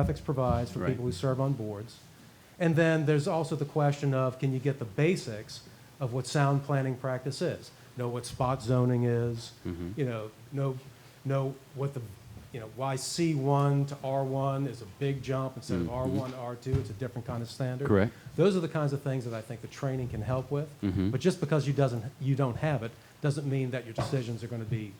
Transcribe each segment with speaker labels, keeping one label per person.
Speaker 1: ethics provides for
Speaker 2: Right.
Speaker 1: people who serve on boards. And then there's also the question of can you get the basics of what sound planning practice is? Know what spot zoning is,
Speaker 2: Mm-hmm.
Speaker 1: you know, know, know what the, you know, why C1 to R1 is a big jump instead of R1 to R2, it's a different kind of standard.
Speaker 2: Mm-hmm. Correct. Mm-hmm.
Speaker 1: Those are the kinds of things that I think the training can help with. But just because you, doesn't, you don't have it doesn't mean that your decisions are going to be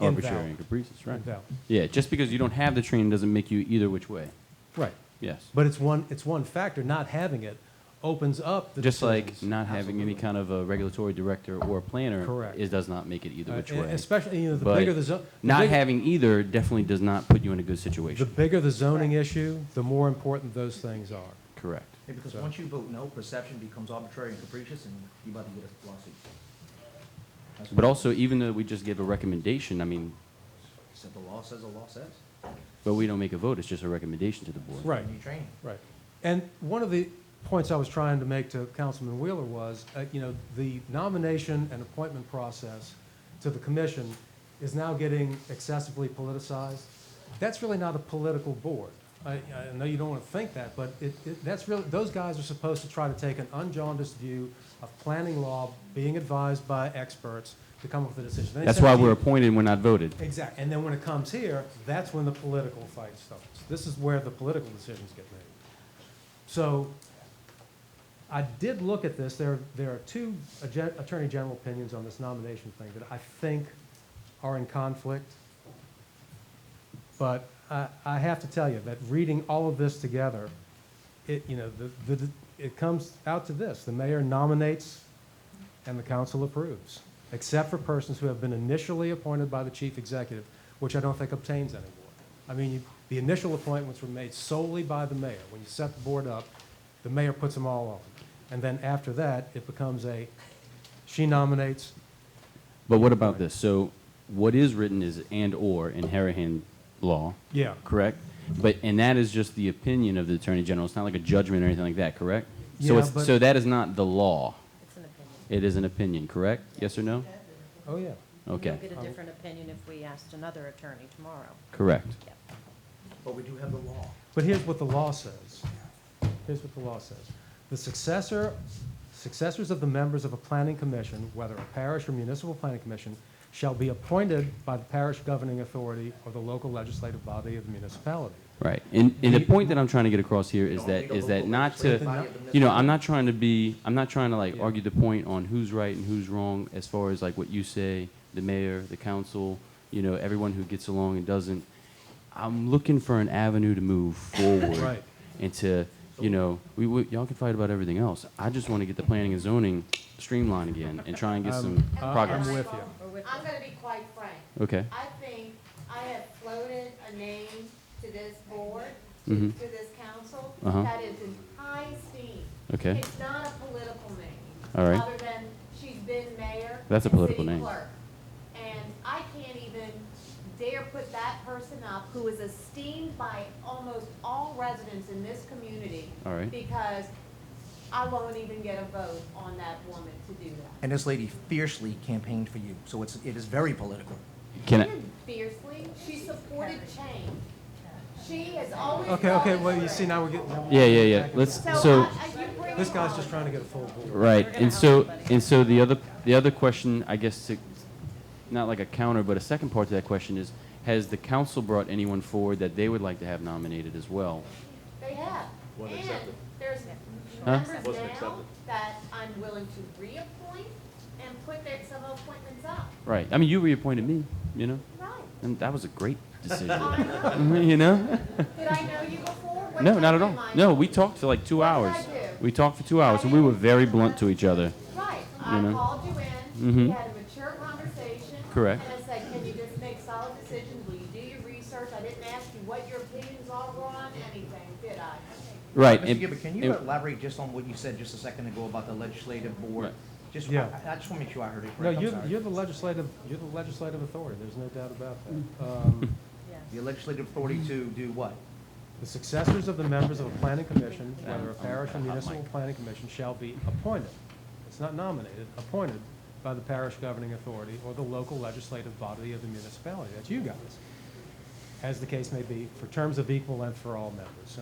Speaker 2: Arbitrary and
Speaker 1: invalid.
Speaker 2: capricious, right?
Speaker 1: Invalid.
Speaker 2: Yeah, just because you don't have the training doesn't make you either which way.
Speaker 1: Right.
Speaker 2: Yes.
Speaker 1: But it's one, it's one factor. Not having it opens up the
Speaker 2: Just like
Speaker 1: decisions.
Speaker 2: not having any
Speaker 1: Absolutely.
Speaker 2: kind of a regulatory director or a planner.
Speaker 1: Correct.
Speaker 2: It does not make it either
Speaker 1: Uh,
Speaker 2: which
Speaker 1: and
Speaker 2: way.
Speaker 1: Especially, you know, the
Speaker 2: But
Speaker 1: bigger the zone.
Speaker 2: Not having either definitely does not put you in a good
Speaker 1: The
Speaker 2: situation.
Speaker 1: bigger the zoning issue, the more important those things are.
Speaker 2: Correct.
Speaker 3: Yeah, because
Speaker 1: So-
Speaker 3: once you vote no, perception becomes arbitrary and capricious, and you about to get a lawsuit. That's
Speaker 2: But
Speaker 3: what-
Speaker 2: also, e- even though we just give a recommendation, I mean,
Speaker 3: Except the law says the law says.
Speaker 2: but we don't make a vote, it's just a recommendation to the board.
Speaker 1: Right.
Speaker 3: And you train.
Speaker 1: Right. And one of the points I was trying to make to Councilman Wheeler was, uh, you know, the nomination and appointment process to the commission is now getting excessively politicized. That's really not a political board. I, I know you don't want to think that, but it, it, that's really, those guys are supposed to try to take an unjaundiced view of planning law, being advised by experts to come up with a decision. They
Speaker 2: That's
Speaker 1: send it
Speaker 2: why
Speaker 1: to
Speaker 2: we're
Speaker 1: you.
Speaker 2: appointed and we're not voted.
Speaker 1: Exactly. And then when it comes here, that's when the political fight starts. This is where the political decisions get made. So I did look at this. There, there are two agen- Attorney General opinions on this nomination thing that I think are in conflict. But I, I have to tell you that reading all of this together, it, you know, the, the, it comes out to this. The mayor nominates and the council approves, except for persons who have been initially appointed by the chief executive, which I don't think obtains anymore. I mean, you- the initial appointments were made solely by the mayor. When you set the board up, the mayor puts them all on. And then after that, it becomes a, she nominates,
Speaker 2: But what about this? So what is written is and/or in Harahan law,
Speaker 1: yeah,
Speaker 2: correct? But, and that is just the opinion of the Attorney General. It's not like a judgment or anything like that, correct? So
Speaker 1: Yeah,
Speaker 2: it's,
Speaker 1: but-
Speaker 2: so that is not the law.
Speaker 4: It's an opinion.
Speaker 2: It is an opinion, correct? Yes or no?
Speaker 1: oh, yeah.
Speaker 4: And
Speaker 2: Okay,
Speaker 4: You'll get a different opinion if we asked another attorney tomorrow.
Speaker 2: correct.
Speaker 4: Yep.
Speaker 3: But we do have the law.
Speaker 1: But here's what the law says. Here's what the law says. The successor, successors of the members of a planning commission, whether a parish or municipal planning commission, shall be appointed by the parish governing authority or the local legislative body of the municipality.
Speaker 2: Right. And, and the point that I'm trying to get across here is
Speaker 3: Don't
Speaker 2: that,
Speaker 3: be
Speaker 2: is
Speaker 3: the
Speaker 2: that
Speaker 3: local
Speaker 2: not
Speaker 3: legislative
Speaker 2: to,
Speaker 3: body of the
Speaker 2: you know, I'm
Speaker 3: municipality.
Speaker 2: not trying to be, I'm not trying to like
Speaker 1: Yeah.
Speaker 2: argue the point on who's right and who's wrong as far as like what you say, the mayor, the council, you know, everyone who gets along and doesn't. I'm looking for an avenue to move forward.
Speaker 1: Right.
Speaker 2: And to, you know, we, we, y'all can fight about everything else. I just want to get the planning and zoning streamlined again and try and get some
Speaker 1: Uh, I'm
Speaker 2: progress.
Speaker 1: with you.
Speaker 4: Or with
Speaker 5: I'm
Speaker 4: you.
Speaker 5: gonna be quite frank.
Speaker 2: Okay.
Speaker 5: I think I have floated a name to this board, to
Speaker 2: Mhm.
Speaker 5: to this council,
Speaker 2: Uh-huh.
Speaker 5: that is in high esteem.
Speaker 2: Okay.
Speaker 5: It's not a political name.
Speaker 2: All right.
Speaker 5: Other than she's been mayor.
Speaker 2: That's a
Speaker 5: and
Speaker 2: political
Speaker 5: city
Speaker 2: name.
Speaker 5: clerk. And I can't even dare put that person up who is esteemed by almost all residents in this community.
Speaker 2: All right.
Speaker 5: Because I won't even get a vote on that woman to do that.
Speaker 3: And this lady fiercely campaigned for you, so it's, it is very political.
Speaker 2: Can I,
Speaker 5: She didn't fiercely, she supported change. She has always.
Speaker 1: Okay, okay,
Speaker 5: always
Speaker 1: well, you see,
Speaker 5: been.
Speaker 1: now we're getting. now we're
Speaker 2: Yeah, yeah,
Speaker 1: getting
Speaker 2: yeah.
Speaker 1: back into
Speaker 2: Let's-
Speaker 1: it.
Speaker 5: So,
Speaker 2: So-
Speaker 5: I- I- you bring
Speaker 1: This
Speaker 5: it
Speaker 1: guy's
Speaker 5: on.
Speaker 1: just trying to get a full board.
Speaker 2: Right,
Speaker 4: We're gonna
Speaker 2: and
Speaker 4: help
Speaker 2: so,
Speaker 4: everybody.
Speaker 2: and so the other, the other question, I guess, to, not like a counter, but a second part to that question is, has the council brought anyone forward that they would like to have nominated as well?
Speaker 5: They have.
Speaker 6: Wasn't
Speaker 5: And
Speaker 6: accepted.
Speaker 5: there's
Speaker 2: Huh?
Speaker 5: members
Speaker 6: Wasn't
Speaker 5: now
Speaker 6: accepted.
Speaker 5: that I'm willing to reappoint and put their, some appointments up.
Speaker 2: Right, I mean, you reappointed me, you know,
Speaker 5: Right.
Speaker 2: and that was a great
Speaker 5: I
Speaker 2: decision,
Speaker 5: know.
Speaker 2: you know?
Speaker 5: Did I know you before? What
Speaker 2: No,
Speaker 5: time
Speaker 2: not at all.
Speaker 5: am I?
Speaker 2: No, we talked for like two
Speaker 5: What did
Speaker 2: hours.
Speaker 5: I do?
Speaker 2: We talked for two hours, and we were very blunt to each other.
Speaker 5: Right.
Speaker 2: You
Speaker 5: I
Speaker 2: know?
Speaker 5: called you in,
Speaker 2: Mhm.
Speaker 5: we had a mature conversation.
Speaker 2: Correct.
Speaker 5: And I said, can you just make solid decisions? Will you do your research? I didn't ask you what your opinions all were on anything, did I?
Speaker 2: Right.
Speaker 3: Mr.
Speaker 2: and-
Speaker 3: Gilbert, can you
Speaker 2: and-
Speaker 3: elaborate just on what you said just a second ago about the legislative board?
Speaker 2: Right.
Speaker 3: Just, I,
Speaker 1: Yeah.
Speaker 3: I just want to make sure I heard it
Speaker 1: No,
Speaker 3: correct, I'm
Speaker 1: you're,
Speaker 3: sorry.
Speaker 1: you're the legislative, you're the legislative authority, there's no doubt about that. Um,
Speaker 3: The legislative authority to
Speaker 1: Mm-hmm.
Speaker 3: do what?
Speaker 1: The successors of the members of a planning commission, whether a parish or municipal planning commission, shall be appointed. It's not nominated, appointed by the parish governing authority or the local legislative body of the municipality. That's you guys. as the case may be, for terms of equal length for all members.